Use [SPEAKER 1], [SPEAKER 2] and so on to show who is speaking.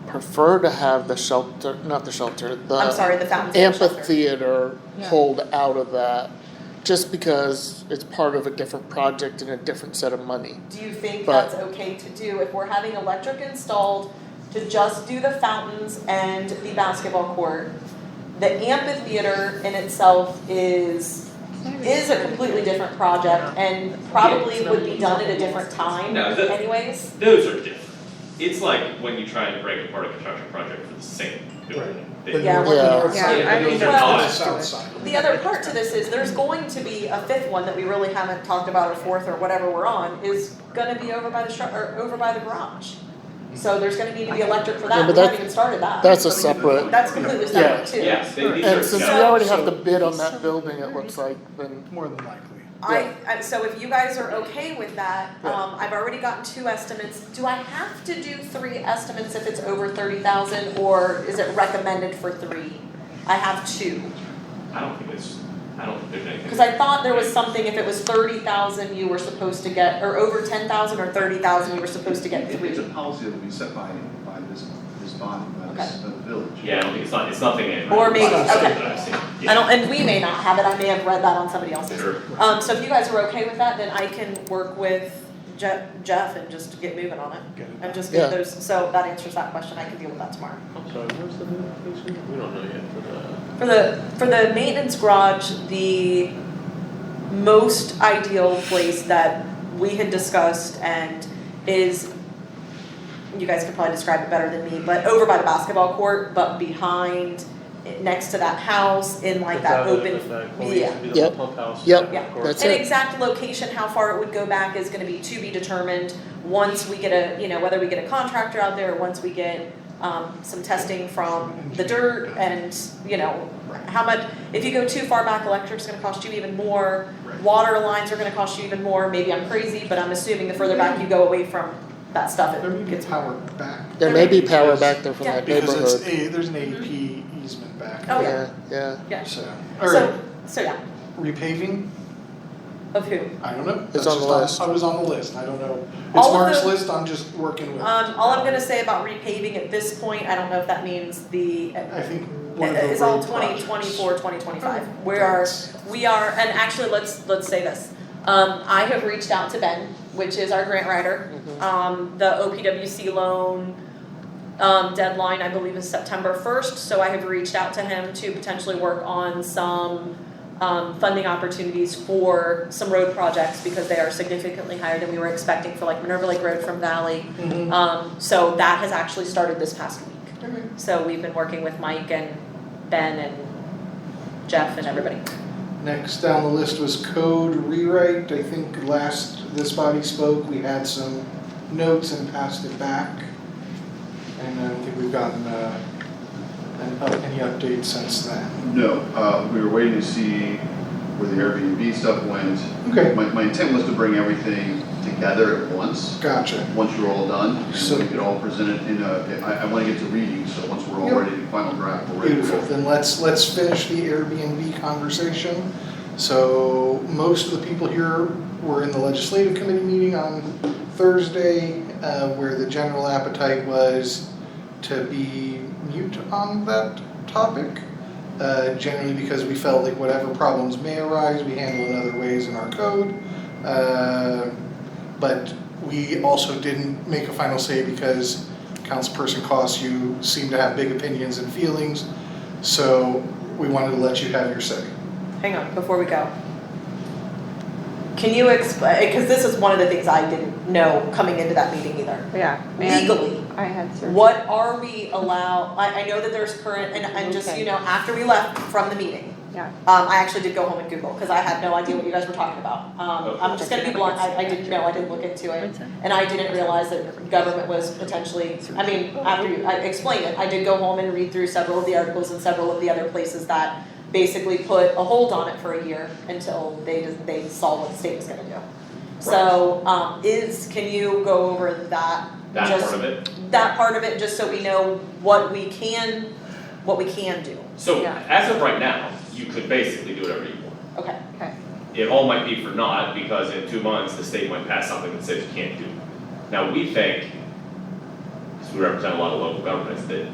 [SPEAKER 1] prefer to have the shelter, not the shelter, the
[SPEAKER 2] I'm sorry, the fountain.
[SPEAKER 1] amphitheater
[SPEAKER 3] Yeah.
[SPEAKER 1] pulled out of that, just because it's part of a different project and a different set of money.
[SPEAKER 2] Do you think
[SPEAKER 1] But-
[SPEAKER 2] that's okay to do if we're having electric installed to just do the fountains and the basketball court? The amphitheater in itself is is a completely different project and probably would be done at a different time
[SPEAKER 4] No, the-
[SPEAKER 2] anyways.
[SPEAKER 4] Those are different. It's like when you try and break apart a construction project for the same building. They-
[SPEAKER 2] Yeah.
[SPEAKER 3] Yeah, I
[SPEAKER 4] Yeah,
[SPEAKER 3] mean,
[SPEAKER 4] those are not-
[SPEAKER 3] that's
[SPEAKER 5] South
[SPEAKER 3] good.
[SPEAKER 5] side.
[SPEAKER 2] The other part to this is there's going to be a fifth one that we really haven't talked about or fourth or whatever we're on is gonna be over by the shru- or over by the garage. So there's gonna need to be electric for
[SPEAKER 1] Yeah,
[SPEAKER 2] that,
[SPEAKER 1] but
[SPEAKER 2] we haven't
[SPEAKER 1] that-
[SPEAKER 2] even started that.
[SPEAKER 1] That's a separate,
[SPEAKER 2] That's completely separate too.
[SPEAKER 4] Yeah, they- these are
[SPEAKER 1] and since we
[SPEAKER 4] separate.
[SPEAKER 1] already have to bid on that building, it looks like, then
[SPEAKER 5] More than likely.
[SPEAKER 2] I, I- so if you guys are okay with that, um, I've already gotten two estimates, do I have to do three estimates if it's over thirty thousand, or is it recommended for three? I have two,
[SPEAKER 4] I don't think it's, I don't think there's anything.
[SPEAKER 2] cause I thought there was something, if it was thirty thousand, you were supposed to get, or over ten thousand or thirty thousand, you were supposed to get
[SPEAKER 6] It-
[SPEAKER 2] three.
[SPEAKER 6] It's a policy that will be set by, by this, this body, by this, by the village.
[SPEAKER 4] Yeah, I don't think it's not, it's nothing in.
[SPEAKER 2] Or maybe-
[SPEAKER 4] It's not
[SPEAKER 2] okay.
[SPEAKER 4] that I've seen.
[SPEAKER 2] I don't, and we may not have it, I may have read that on somebody
[SPEAKER 4] Yeah,
[SPEAKER 2] else's.
[SPEAKER 4] Sure.
[SPEAKER 2] Um, so if you guys are okay with that, then I can work with Je- Jeff and just get moving on it.
[SPEAKER 5] Get it.
[SPEAKER 2] And just get
[SPEAKER 1] Yeah.
[SPEAKER 2] those, so that answers that question, I can deal with that tomorrow.
[SPEAKER 7] We don't know yet uh, for the.
[SPEAKER 2] For the, for the maintenance garage, the most ideal place that we had discussed and is, you guys could probably describe it better than me, but over by the basketball court, but behind, next to that house, in like that open.
[SPEAKER 7] With that, what we used to be the
[SPEAKER 1] Yep.
[SPEAKER 7] pump house.
[SPEAKER 1] Yep.
[SPEAKER 7] that
[SPEAKER 2] Yeah.
[SPEAKER 7] court.
[SPEAKER 1] That's-
[SPEAKER 2] An
[SPEAKER 1] it.
[SPEAKER 2] exact location, how far it would go back is gonna be to be determined, once we get a, you know, whether we get a contractor out there, once we get, um, some testing from the dirt and, you know, how much, if you go too far back, electric's gonna cost you even more,
[SPEAKER 6] Right.
[SPEAKER 2] water lines are gonna cost you even more, maybe I'm crazy, but I'm assuming the further back you go away from that stuff,
[SPEAKER 5] There
[SPEAKER 2] it
[SPEAKER 5] may
[SPEAKER 2] gets
[SPEAKER 5] be power back.
[SPEAKER 1] there may be power back there from
[SPEAKER 2] Yeah.
[SPEAKER 1] that
[SPEAKER 5] Because it's,
[SPEAKER 1] neighborhood.
[SPEAKER 5] a- there's an AEP easement back.
[SPEAKER 2] Oh,
[SPEAKER 5] there.
[SPEAKER 1] Yeah, yeah,
[SPEAKER 2] yeah.
[SPEAKER 5] So,
[SPEAKER 2] So,
[SPEAKER 5] or
[SPEAKER 2] so yeah,
[SPEAKER 5] repaving,
[SPEAKER 2] of who?
[SPEAKER 5] I don't know.
[SPEAKER 1] It's
[SPEAKER 5] That's
[SPEAKER 1] on the
[SPEAKER 5] just
[SPEAKER 1] list.
[SPEAKER 5] I was on the list, I don't know.
[SPEAKER 2] All
[SPEAKER 5] It's
[SPEAKER 2] of
[SPEAKER 5] Mark's
[SPEAKER 2] the-
[SPEAKER 5] list, I'm just working with.
[SPEAKER 2] Um, all I'm gonna say about repaving at this point, I don't know if that means the,
[SPEAKER 5] I think one of the
[SPEAKER 2] It's all
[SPEAKER 5] road
[SPEAKER 2] twenty
[SPEAKER 5] projects.
[SPEAKER 2] twenty-four, twenty twenty-five. We are, we are, and actually, let's, let's say this. Um, I have reached out to Ben, which is our grant writer. Um, the OPWC loan, um, deadline, I believe, is September first, so I have reached out to him to potentially work on some, um, funding opportunities for some road projects, because they are significantly higher than we were expecting for like Minerva Lake Road from Valley.
[SPEAKER 5] Mhm.
[SPEAKER 2] Um, so that has actually started this past week.
[SPEAKER 5] Okay.
[SPEAKER 2] So we've been working with Mike and Ben and Jeff and everybody.
[SPEAKER 5] Next down the list was code rewrite. I think last this body spoke, we had some notes and passed it back. And I don't think we've gotten uh, an- uh, any updates since then.
[SPEAKER 6] No, uh, we were waiting to see where the Airbnb stuff went.
[SPEAKER 5] Okay,
[SPEAKER 6] My, my intent was to bring everything together at once,
[SPEAKER 5] gotcha.
[SPEAKER 6] once you're all done, and
[SPEAKER 5] So-
[SPEAKER 6] so we could all present it in a, I, I wanna get to reading, so once we're all
[SPEAKER 5] Yep.
[SPEAKER 6] ready to final draft, we're ready to
[SPEAKER 5] Beautiful.
[SPEAKER 6] go.
[SPEAKER 5] Then let's let's finish the Airbnb conversation. So most of the people here were in the legislative committee meeting on Thursday, uh, where the general appetite was to be mute on that topic. Uh, generally because we felt like whatever problems may arise, we handle in other ways in our code. Uh, but we also didn't make a final say because councilperson Cost, you seem to have big opinions and feelings. So we wanted to let you have your say.
[SPEAKER 2] Hang on, before we go. Can you explain, because this is one of the things I didn't know coming into that meeting either.
[SPEAKER 3] Yeah, and
[SPEAKER 2] Legally,
[SPEAKER 3] I had surgery.
[SPEAKER 2] what are we allow, I, I know that there's current, and, and just, you know, after we left from the meeting.
[SPEAKER 3] Yeah.
[SPEAKER 2] Um, I actually did go home and Google, because I had no idea what you guys were talking about. Um, I'm just gonna be blunt, I, I didn't know, I didn't look into it. And I didn't realize that government was potentially, I mean, after you, I explained it, I did go home and read through several of the articles and several of the other places that basically put a hold on it for a year until they, just- they saw what the state was gonna do. So, um, is, can you go over that?
[SPEAKER 4] That
[SPEAKER 2] just-
[SPEAKER 4] part of it.
[SPEAKER 2] That part of it, just so we know what we can, what we can do,
[SPEAKER 4] So
[SPEAKER 3] Yeah.
[SPEAKER 4] as of right now, you could basically do whatever you want.
[SPEAKER 2] okay,
[SPEAKER 3] Okay,
[SPEAKER 4] It all might be for naught because in two months, the state might pass something that says you can't do. it. Now, we think, as we represent a lot of local governments that